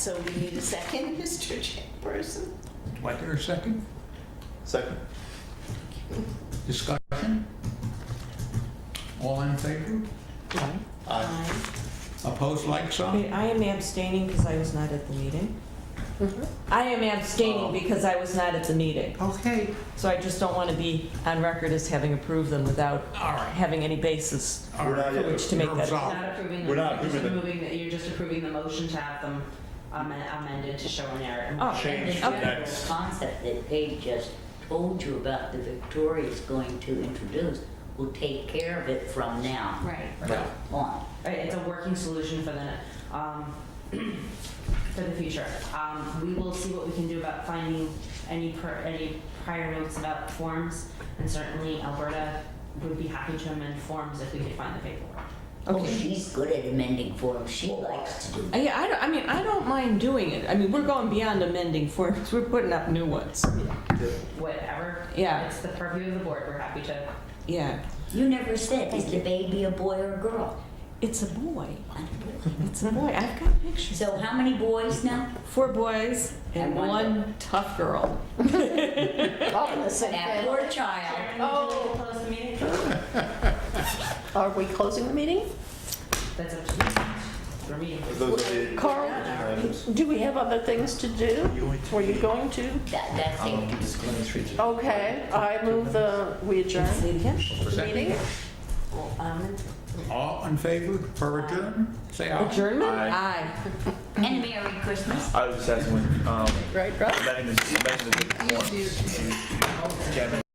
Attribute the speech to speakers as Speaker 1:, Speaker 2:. Speaker 1: So we need a second, Mr. Chairperson?
Speaker 2: Wait there a second.
Speaker 3: Second.
Speaker 2: Discussion? All in favor?
Speaker 4: Aye.
Speaker 3: Aye.
Speaker 2: Opposed, like sign?
Speaker 4: Wait, I am abstaining because I was not at the meeting.
Speaker 1: Mhm.
Speaker 5: Mm-hmm.
Speaker 4: I am
Speaker 2: Oh.
Speaker 4: abstaining because I was not at the meeting.
Speaker 2: Okay,
Speaker 4: So I just don't want to be on record as having approved them without
Speaker 2: all right.
Speaker 4: having any basis.
Speaker 2: All
Speaker 3: We're not
Speaker 2: right.
Speaker 3: yet-
Speaker 4: Which to make
Speaker 2: You're
Speaker 4: that-
Speaker 2: absolved.
Speaker 6: Not approving
Speaker 3: We're
Speaker 6: them,
Speaker 3: not
Speaker 6: you're just
Speaker 3: approving
Speaker 6: approving, the- you're just approving the motion to have them amen- amended to show an error.
Speaker 4: Oh,
Speaker 3: Change to
Speaker 5: And the general
Speaker 3: next.
Speaker 5: concept that Paige just told you about the Victoria's going to introduce will take care of it from now
Speaker 6: Right,
Speaker 3: Right.
Speaker 5: on.
Speaker 6: right, it's a working solution for the, um, for the future. Um, we will see what we can do about finding any per, any prior notes about forms, and certainly Alberta would be happy to amend forms if we could find the paperwork.
Speaker 5: Oh,
Speaker 4: Okay.
Speaker 5: she's good at amending forms, she likes to do
Speaker 4: Uh, Yeah, I, don't- I mean, I don't mind doing it. I mean, we're going beyond amending forms, we're putting up new ones.
Speaker 6: Whatever.
Speaker 4: Yeah.
Speaker 6: It's the purview of the board, we're happy to.
Speaker 4: Yeah.
Speaker 5: You never said, is the baby a boy or a girl?
Speaker 4: It's a boy. It's a boy. I've got pictures.
Speaker 5: So how many boys now?
Speaker 4: Four boys and
Speaker 5: And one
Speaker 4: one tough girl.
Speaker 1: All
Speaker 5: That poor child.
Speaker 6: Oh. Close the meeting?
Speaker 1: Are we closing the meeting?
Speaker 6: That's up to you, for me.
Speaker 3: Those are the
Speaker 1: Carl,
Speaker 3: items.
Speaker 1: do we have other things to do? Were you going to?
Speaker 5: That, that's it.
Speaker 3: Um,
Speaker 1: Okay, I move the, we adjourn
Speaker 4: Say it again.
Speaker 1: the meeting.
Speaker 6: Um,
Speaker 2: All in favor for adjourn? Say aye.
Speaker 4: Adjournment?
Speaker 3: Aye.
Speaker 4: Aye.
Speaker 5: And Merry Christmas.
Speaker 7: I was just asking, um,
Speaker 1: Right, Rob?
Speaker 7: letting the, letting the, Kevin.